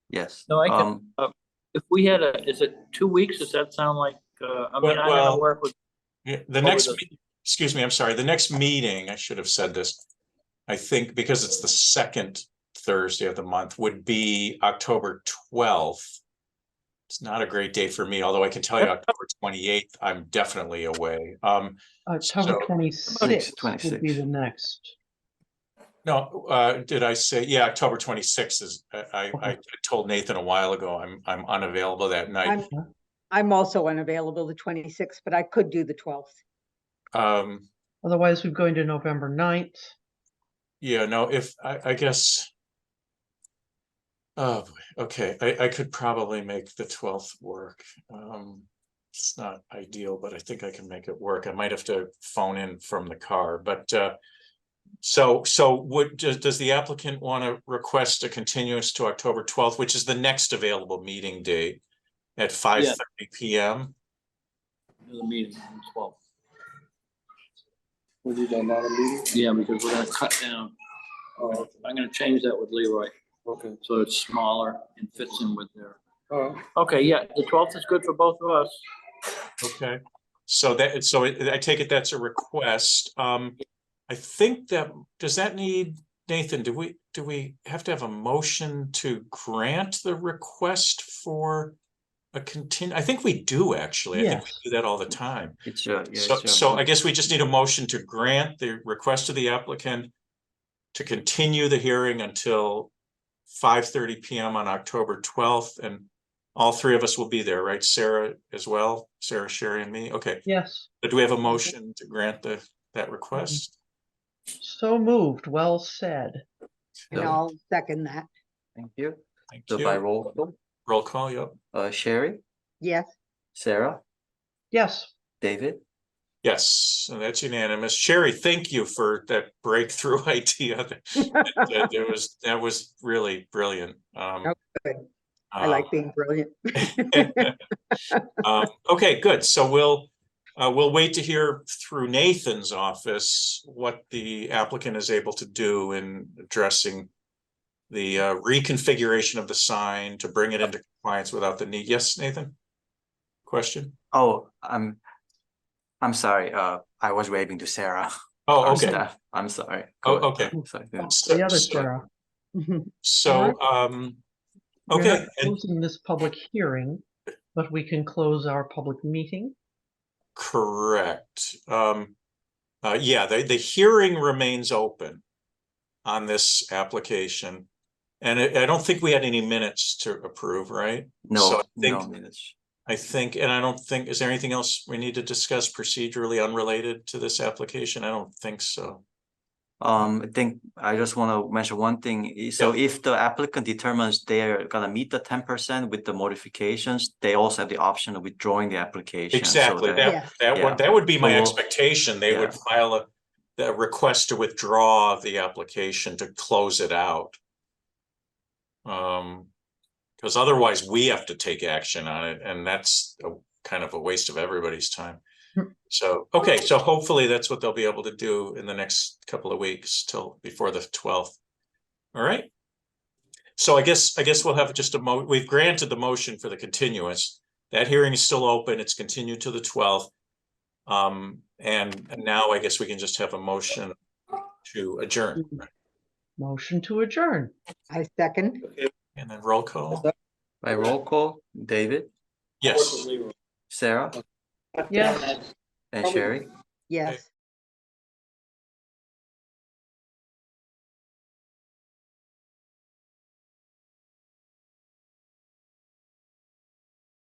yes. No, I can- Um, If we had a, is it two weeks? Does that sound like, uh, I mean, I Well- don't work with, Yeah, The What next, was me- excuse me, I'm sorry, the next meeting, I should have said this. I think because it's the second Thursday of the month would be October twelfth. It's not a great day for me, although I can tell you October twenty-eighth, I'm definitely away. Um, October So- twenty-sixth would be 26th. the next. no, uh, did I say, yeah, October twenty-sixth is, I, I, I told Nathan a while ago, I'm, I'm unavailable that night. I'm, I'm also unavailable the twenty-sixth, but I could do the twelfth. Um, Otherwise, we're going to November 9th. Yeah, no, if I, I guess. Oh, boy, okay, I, I could probably make the twelfth work. Um, it's not ideal, but I think I can make it work. I might have to phone in from the car, but, uh. So, so would, does, does the applicant want to request a continuance to October twelfth, which is the next available meeting date? At five thirty PM? the meeting on the twelfth. Would you done that a meeting? Yeah, because we're gonna cut down. Uh, Oh, I'm gonna change that with Leroy, okay, so it's smaller and fits in with their. all right. Okay, yeah, the twelfth is good for both of us. Okay, so that, so I I take it that's a request. Um, I think that, does that need, Nathan, do we, do we have to have a motion to grant the request for a contin, I think we do actually. I think Yes. we do that all the time. It's, uh, yeah. So, it's, uh, so I guess we just need a motion to grant the request of the applicant to continue the hearing until five thirty PM on October twelfth, and all three of us will be there, right? Sarah as well, Sarah, Sherry, and me. Okay, Yes, but do we have a motion to grant the, that request? so moved, well said. And Yeah. I'll second that. Thank you. Thank So by you. roll, call, Roll call, yep. uh, Sherry, Yes, Sarah, Yes, David, Yes, so that's unanimous. Sherry, thank you for that breakthrough idea. That- that- There was, that was really brilliant. Um, Oh, good. I um, like being brilliant. Um, okay, good. So we'll, uh, we'll wait to hear through Nathan's office what the applicant is able to do in addressing the uh, reconfiguration of the sign to bring it into compliance without the need. Yes, Nathan? Question? oh, I'm, I'm sorry, uh, I was waving to Sarah. Oh, our okay. staff. I'm sorry. Oh, Go ahead. okay. Sorry, yeah. So- the other so- Sarah. So, um, We're not okay, and Closing this public hearing, but we can close our public meeting. correct. Um, uh, yeah, the, the hearing remains open on this application. And I, I don't think we had any minutes to approve, right? so No, I think- no minutes. I think, and I don't think, is there anything else we need to discuss procedurally unrelated to this application? I don't think so. Um, I think I just want to mention one thing. I- So if the applicant determines they're gonna meet the ten percent with the modifications, they also have the option of withdrawing the application. so Exactly. that- Yeah. That, that Yeah. would, that would be my Well, expectation. They would file a, the request to withdraw the application to close it out. Um, because otherwise we have to take action on it and that's a kind of a waste of everybody's time. So, okay, so hopefully that's what they'll be able to do in the next couple of weeks till before the twelfth. All right. So I guess, I guess we'll have just a mo, we've granted the motion for the continuance. That hearing is still open. It's continued to the twelfth. Um, and now I guess we can just have a motion to adjourn Motion to adjourn. I second. and then roll call. By roll call, David, Yes. Sarah, Yes, and Sherry. Yes.